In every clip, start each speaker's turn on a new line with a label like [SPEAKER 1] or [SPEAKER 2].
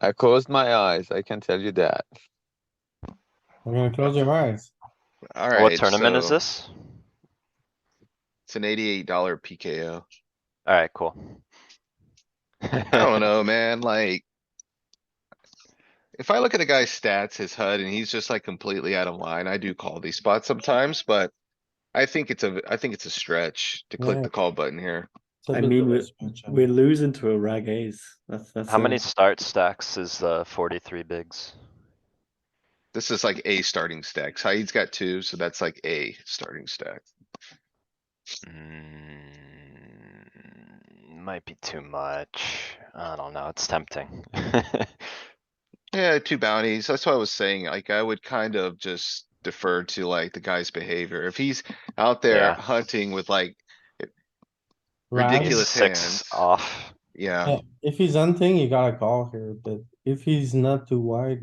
[SPEAKER 1] I closed my eyes, I can tell you that.
[SPEAKER 2] We're gonna close your eyes.
[SPEAKER 3] Alright.
[SPEAKER 4] What tournament is
[SPEAKER 3] so
[SPEAKER 4] this?
[SPEAKER 3] It's an eighty-eight dollar PKO.
[SPEAKER 4] Alright, cool.
[SPEAKER 3] I don't know, man, like. If I look at a guy's stats, his HUD, and he's just like completely out of line, I do call these spots sometimes, but. I think it's a, I think it's a stretch to click
[SPEAKER 5] Yeah.
[SPEAKER 3] the call button here.
[SPEAKER 2] It's a
[SPEAKER 5] I
[SPEAKER 2] bit
[SPEAKER 5] mean,
[SPEAKER 2] of a
[SPEAKER 5] we-
[SPEAKER 2] stretch, I
[SPEAKER 5] We're losing to a rag ace. That's that's
[SPEAKER 4] How
[SPEAKER 5] the-
[SPEAKER 4] many start stacks is uh forty-three bigs?
[SPEAKER 3] This is like a starting stack. Saeed's got two, so that's like a starting stack.
[SPEAKER 4] Mm, Might be too much. I don't know, it's tempting.
[SPEAKER 3] Yeah, two bounties. That's what I was saying. Like, I would kind of just defer to like the guy's behavior. If he's out there
[SPEAKER 4] Yeah.
[SPEAKER 3] hunting with like,
[SPEAKER 2] Rags.
[SPEAKER 4] He's
[SPEAKER 3] Ridiculous
[SPEAKER 4] Six
[SPEAKER 3] hands.
[SPEAKER 4] off.
[SPEAKER 3] yeah,
[SPEAKER 2] Yeah, If he's hunting, you gotta call here, but if he's not too wide,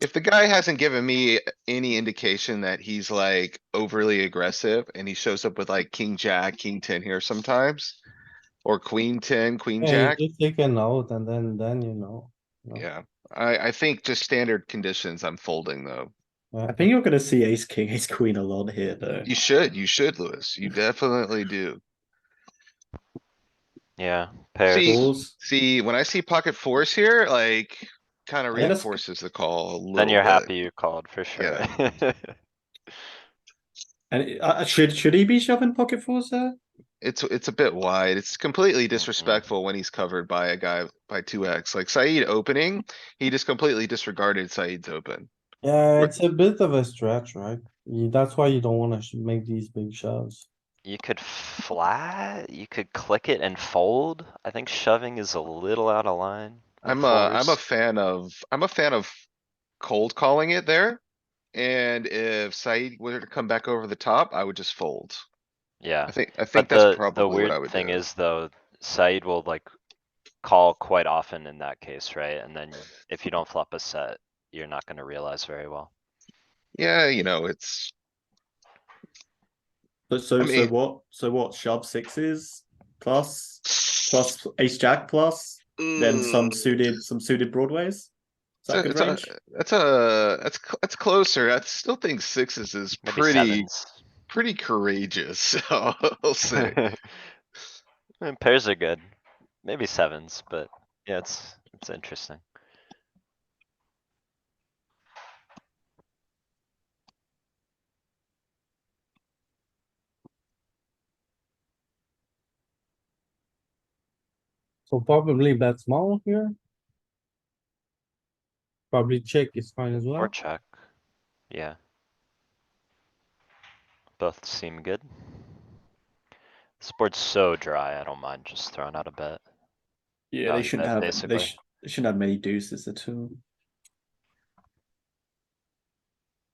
[SPEAKER 3] if the guy hasn't given me any indication that he's like overly aggressive and he shows up with like king, jack, king ten here sometimes. Or queen ten, queen,
[SPEAKER 2] yeah,
[SPEAKER 3] jack,
[SPEAKER 2] you just take a note and then, then you know. know.
[SPEAKER 3] yeah. I, I think just standard conditions I'm folding though.
[SPEAKER 5] I think you're gonna see ace king, ace queen a lot here though.
[SPEAKER 3] You should, you should, Louis. You definitely do.
[SPEAKER 4] Yeah, pairs.
[SPEAKER 3] See,
[SPEAKER 5] Balls.
[SPEAKER 3] See, when I see pocket fours here, like, kinda
[SPEAKER 5] Yeah, that's-
[SPEAKER 3] reinforces the call a little
[SPEAKER 4] Then you're
[SPEAKER 3] bit.
[SPEAKER 4] happy you called for sure.
[SPEAKER 5] And it- uh, uh, should should he be shoving pocket fours there?
[SPEAKER 3] It's, it's a bit wide. It's
[SPEAKER 4] Mm-hmm.
[SPEAKER 3] completely disrespectful when he's covered by a guy by two X. Like Saeed opening, he just completely disregarded Saeed's open.
[SPEAKER 2] Yeah, it's a bit of a stretch, right? You- That's why you don't wanna sh- make these big shoves.
[SPEAKER 4] You could flat, you could click it and fold. I think shoving is a little out of line.
[SPEAKER 3] I'm
[SPEAKER 4] on
[SPEAKER 3] a, I'm a
[SPEAKER 4] fours.
[SPEAKER 3] fan of, I'm a fan of cold calling it there. And if Saeed were to come back over the top, I would just fold.
[SPEAKER 4] Yeah.
[SPEAKER 3] I think, I think
[SPEAKER 4] But
[SPEAKER 3] that's
[SPEAKER 4] the,
[SPEAKER 3] probably
[SPEAKER 4] the
[SPEAKER 3] what I
[SPEAKER 4] weird
[SPEAKER 3] would
[SPEAKER 4] thing
[SPEAKER 3] do.
[SPEAKER 4] is though, Said will like call quite often in that case, right? And then if you don't flop a set, you're not gonna realize very well.
[SPEAKER 3] Yeah, you know, it's,
[SPEAKER 5] But so
[SPEAKER 3] I mean-
[SPEAKER 5] so what? So what? Shove sixes plus plus ace jack plus then
[SPEAKER 3] Hmm.
[SPEAKER 5] some suited some suited broadways. Is that
[SPEAKER 3] It's
[SPEAKER 5] good
[SPEAKER 3] Mm, a-
[SPEAKER 5] range?
[SPEAKER 3] That's a, that's, cl- that's closer. I still think sixes is
[SPEAKER 4] Maybe
[SPEAKER 3] pretty,
[SPEAKER 4] sevens.
[SPEAKER 3] pretty courageous, so I'll say.
[SPEAKER 4] I mean, Pairs are good, maybe sevens, but yeah, it's, it's interesting.
[SPEAKER 2] So probably bet small here. Probably check is fine as well.
[SPEAKER 4] Or check, yeah. Both seem good. This board's so dry, I don't mind just throwing out a bet.
[SPEAKER 5] Yeah, they
[SPEAKER 4] Um,
[SPEAKER 5] shouldn't
[SPEAKER 4] that
[SPEAKER 5] have.
[SPEAKER 4] basically-
[SPEAKER 5] They, sh- they shouldn't have many deuces at all.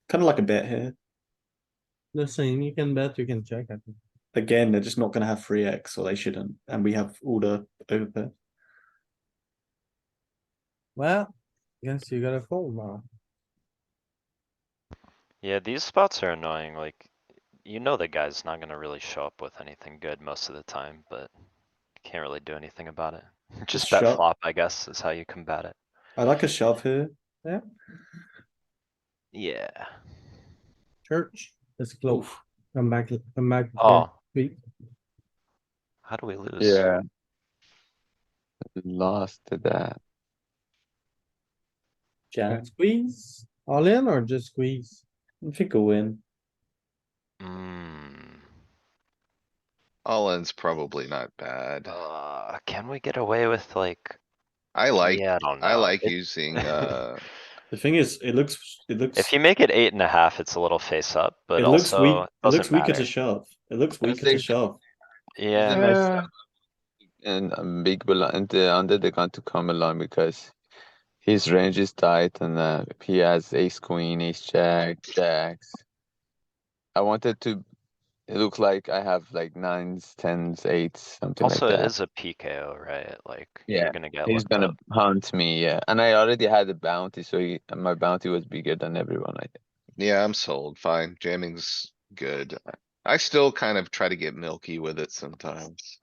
[SPEAKER 5] Kind of like a bet here.
[SPEAKER 2] The same, you can bet, you can check, I think.
[SPEAKER 5] Again, they're just not going to have three x, or they shouldn't. And we have all the overbet.
[SPEAKER 2] Well, guess you gotta fold now.
[SPEAKER 4] Yeah, these spots are annoying, like, you know the guy's not gonna really show up with anything good most of the time, but can't really do anything about it. Just bet
[SPEAKER 5] shove.
[SPEAKER 4] flop, I guess, is how you combat it.
[SPEAKER 5] I like a shove here.
[SPEAKER 4] Yeah.
[SPEAKER 2] Church, it's close. Come back, come back. here.
[SPEAKER 4] Oh,
[SPEAKER 5] Mm-hmm.
[SPEAKER 2] Three.
[SPEAKER 4] how do we lose?
[SPEAKER 1] Yeah. Lost to that.
[SPEAKER 5] Jack,
[SPEAKER 2] Squeeze, all in or just squeeze?
[SPEAKER 5] I think we'll win.
[SPEAKER 4] Mm,
[SPEAKER 3] All in's probably not bad.
[SPEAKER 4] uh, can we get away with like,
[SPEAKER 3] I like,
[SPEAKER 4] yeah, I don't know.
[SPEAKER 3] I like
[SPEAKER 4] It-
[SPEAKER 3] using, uh,
[SPEAKER 5] The thing is, it looks it looks
[SPEAKER 4] If you make it eight and a half, it's a little face up, but
[SPEAKER 5] it looks weak.
[SPEAKER 4] also it
[SPEAKER 5] It looks
[SPEAKER 4] doesn't
[SPEAKER 5] weaker to
[SPEAKER 4] matter.
[SPEAKER 5] shove. It looks
[SPEAKER 1] I
[SPEAKER 5] weaker to
[SPEAKER 1] think-
[SPEAKER 5] shove.
[SPEAKER 4] Yeah,
[SPEAKER 1] Yeah. And um, big blind, uh, under the gun to come along because his range is tight and uh, he has ace queen, ace jack, jacks. I wanted to it look like I have like nines, tens, eights, something
[SPEAKER 4] also
[SPEAKER 1] like
[SPEAKER 4] it
[SPEAKER 1] that.
[SPEAKER 4] is a PKO, right? Like, you're
[SPEAKER 1] Yeah,
[SPEAKER 4] gonna get
[SPEAKER 1] He's
[SPEAKER 4] looked
[SPEAKER 1] gonna
[SPEAKER 4] up.
[SPEAKER 1] hunt me, yeah. And I already had a bounty, so he, my bounty was bigger than everyone. I think.
[SPEAKER 3] yeah, I'm sold. Fine. Jamming's good. I still kind of try to get milky with it sometimes.